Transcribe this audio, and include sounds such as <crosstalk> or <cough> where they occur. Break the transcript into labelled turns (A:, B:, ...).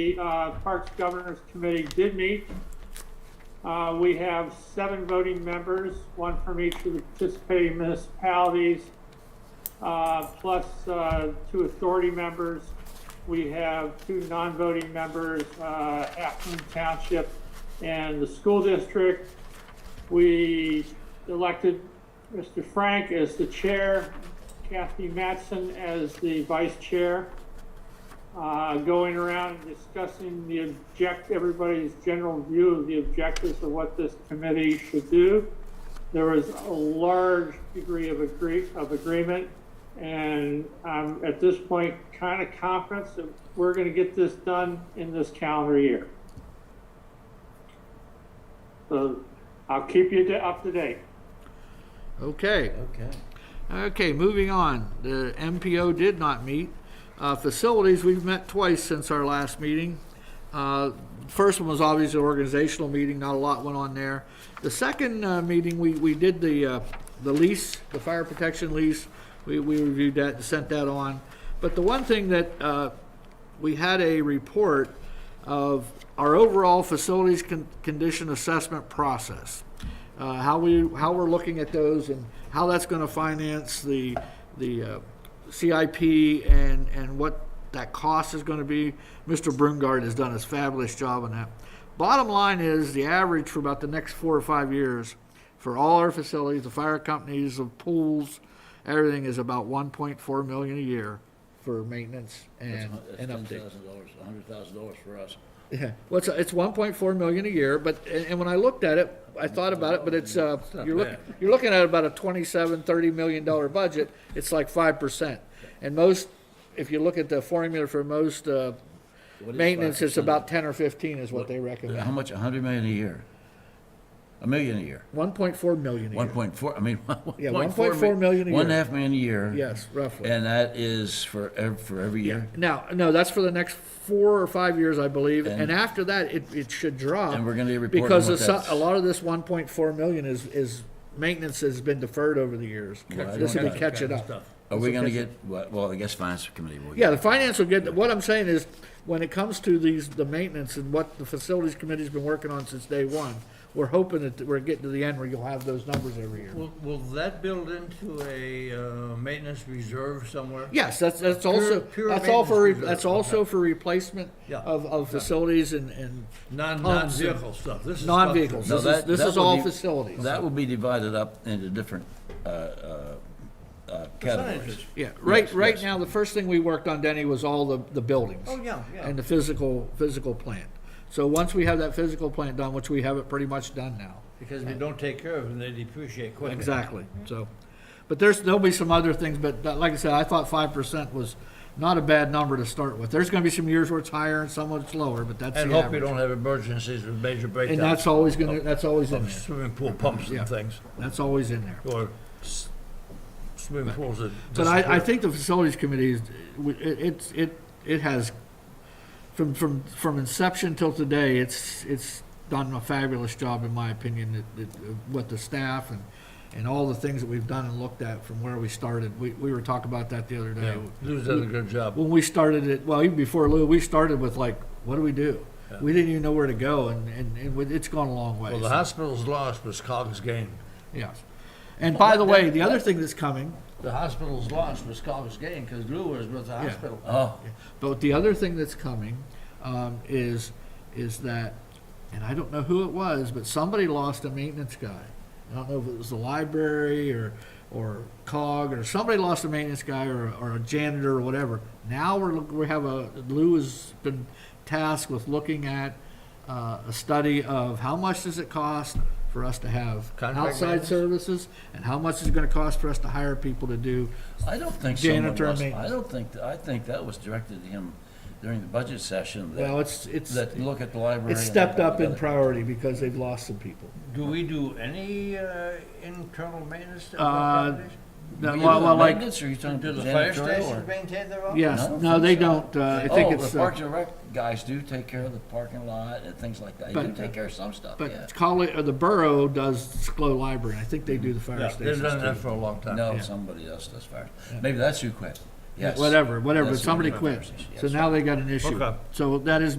A: The uh, Parks Governors Committee did meet. Uh, We have seven voting members, one from each of the participating municipalities, uh, plus uh, two authority members. We have two non-voting members, uh, Acton Township and the school district. We elected Mr. Frank as the chair, Kathy Matson as the vice chair uh, going around and discussing the object, everybody's general view of the objectives of what this committee should do. There was a large degree of agree, of agreement, and I'm at this point kind of confident that we're going to get this done in this calendar year. So I'll keep you to- up to date.
B: Okay,
C: Okay.
B: okay, moving on. The MPO did not meet. Uh, Facilities, we've met twice since our last meeting. Uh, First one was obviously an organizational meeting, not a lot went on there. The second uh, meeting, we, we did the, uh, the lease, the fire protection lease. We, we reviewed that and sent that on. But the one thing that uh, we had a report of our overall facilities con- condition assessment process. Uh, how we, how we're looking at those and how that's gonna finance the, the, uh, CIP and, and what that cost is gonna be. Mr. Brungard has done a fabulous job on that. Bottom line is, the average for about the next four or five years for all our facilities, the fire companies, the pools, everything is about one point four million a year for maintenance and, and update.
C: dollars, a hundred thousand dollars for us.
B: Yeah, well, it's, it's one point four million a year, but, and, and when I looked at it, I thought about it, but it's, uh, you're looking,
C: bad.
B: you're looking at about a twenty-seven, thirty million dollar budget, it's like five percent. And most, if you look at the formula for most, uh,
C: What is
B: maintenance, it's
C: 5%?
B: about ten or fifteen is what they
C: How
B: recommend.
C: much, a hundred million a year? A million a year?
B: One point four million a
C: One
B: year,
C: point four, I mean, <laughs>
B: Yeah,
C: one
B: 1.4 million a
C: One and a
B: year.
C: half million a year.
B: yes, roughly.
C: And that is for ev- for every year?
B: Now, no, that's for the next four or five years, I believe,
C: And-
B: and after that, it, it should drop.
C: And we're gonna report on
B: Because
C: what
B: a so-
C: that's-
B: a lot of this one point four million is, is, maintenance has been deferred over the years.
C: Well, I
B: This will
C: don't
B: be
C: know.
B: catching up.
C: Are we gonna get, well, well, I guess finance committee will.
B: Yeah, the
C: get-
B: finance will get, what I'm saying is, when it comes to these, the maintenance and what the facilities committee's been working on since day one, we're hoping that we're getting to the end where you'll have those numbers every year.
D: Will, will that build into a uh, maintenance reserve somewhere?
B: Yes, that's, that's
D: Pure-
B: also,
D: pure
B: that's all for, re-
D: maintenance reserve,
B: that's also for replacement
D: Yeah.
B: of, of facilities and, and
D: Non,
B: Homes and-
D: non-vehicle stuff, this is. stuff that-
B: non-vehicles. This
C: No,
B: is,
C: that-
B: this
C: that
B: is
C: will
B: all
C: be-
B: facilities.
C: That will be divided up into different, uh, uh, uh, categories.
D: Percentages.
B: Yeah, right,
C: Yes,
B: right
C: yes.
B: now, the first thing we worked on, Denny, was all the, the buildings.
D: Oh, yeah, yeah.
B: And the physical, physical plant. So once we have that physical plant done, which we have it pretty much done now.
D: Because if you don't take care of them, they depreciate quickly.
B: Exactly, so, but there's, there'll be some other things, but that- like I said, I thought five percent was not a bad number to start with. There's gonna be some years where it's higher and some where it's lower, but that's
D: And
B: the
D: hope you
B: average.
D: don't Oh. have emergencies with major
B: And
D: breakdowns
B: that's always gonna, that's always in
D: of
B: there,
D: swimming pool pumps
B: Yeah.
D: and things,
B: that's always in there.
D: or s- swimming pools that.
B: But I, I
D: disappear.
B: think the facilities committee is, it, it's, it, it has, from, from, from inception till today, it's, it's done a fabulous job, in my opinion, that, that, uh, with the staff and, and all the things that we've done and looked at from where we started. We, we were talking about that the other
D: Yeah,
B: day.
D: Lou's done a good job.
B: When we started it, well, even before Lou, we started with like, what do we do? We didn't even know where to go, and, and, and it's gone a long way.
D: Well, the hospital's loss was Coggs' gain.
B: Yes. And by the way, the other thing that's coming,
D: The hospital's loss was Coggs' gain, because Lou was with the hospital.
C: Oh,
B: But the other thing that's coming um, is is that, and I don't know who it was, but somebody lost a maintenance guy. I don't know if it was the library or or cog or somebody lost a maintenance guy or, or a janitor or whatever. Now we're look- we have a Lou has been tasked with looking at uh, a study of how much does it cost for us to have
D: Contract
B: outside
D: maintenance?
B: services and how much is it going to cost for us to hire people to do
C: I don't think someone
B: Janitor
C: was, I
B: maintenance.
C: don't think, I think that was directed to him during the budget session. that-
B: well it's it's
C: that look at the library.
B: it's
C: and
B: stepped
C: look at
B: up in
C: the-
B: priority because they've lost some people.
D: Do we do any uh, internal maintenance? to
B: Uh,
D: our properties?
B: No,
C: You
B: well,
C: do
B: well,
C: the
B: like,
C: maintenance, or you talking
D: Do the
C: janitorial
D: fire
C: or-
D: stations maintain their own?
B: yes,
C: No,
B: no, they
C: so.
B: don't, uh, I think
C: Oh,
B: it's,
C: the
B: uh,
C: Parks and Rec guys do take care of the parking lot and things like that. You
B: But-
C: do take care of some stuff, yeah.
B: but Colli, or the borough does Clo Library, and I think they do the fire
D: Yeah, they've done that
B: stations
D: for
B: too.
D: a long time.
C: No, somebody else does fire. Maybe that's who quit. Yes.
B: Whatever, whatever,
C: That's
B: somebody
C: who did the fire
B: quit,
C: station,
B: so
C: yes.
B: now they got an issue.
D: Okay.
B: So that is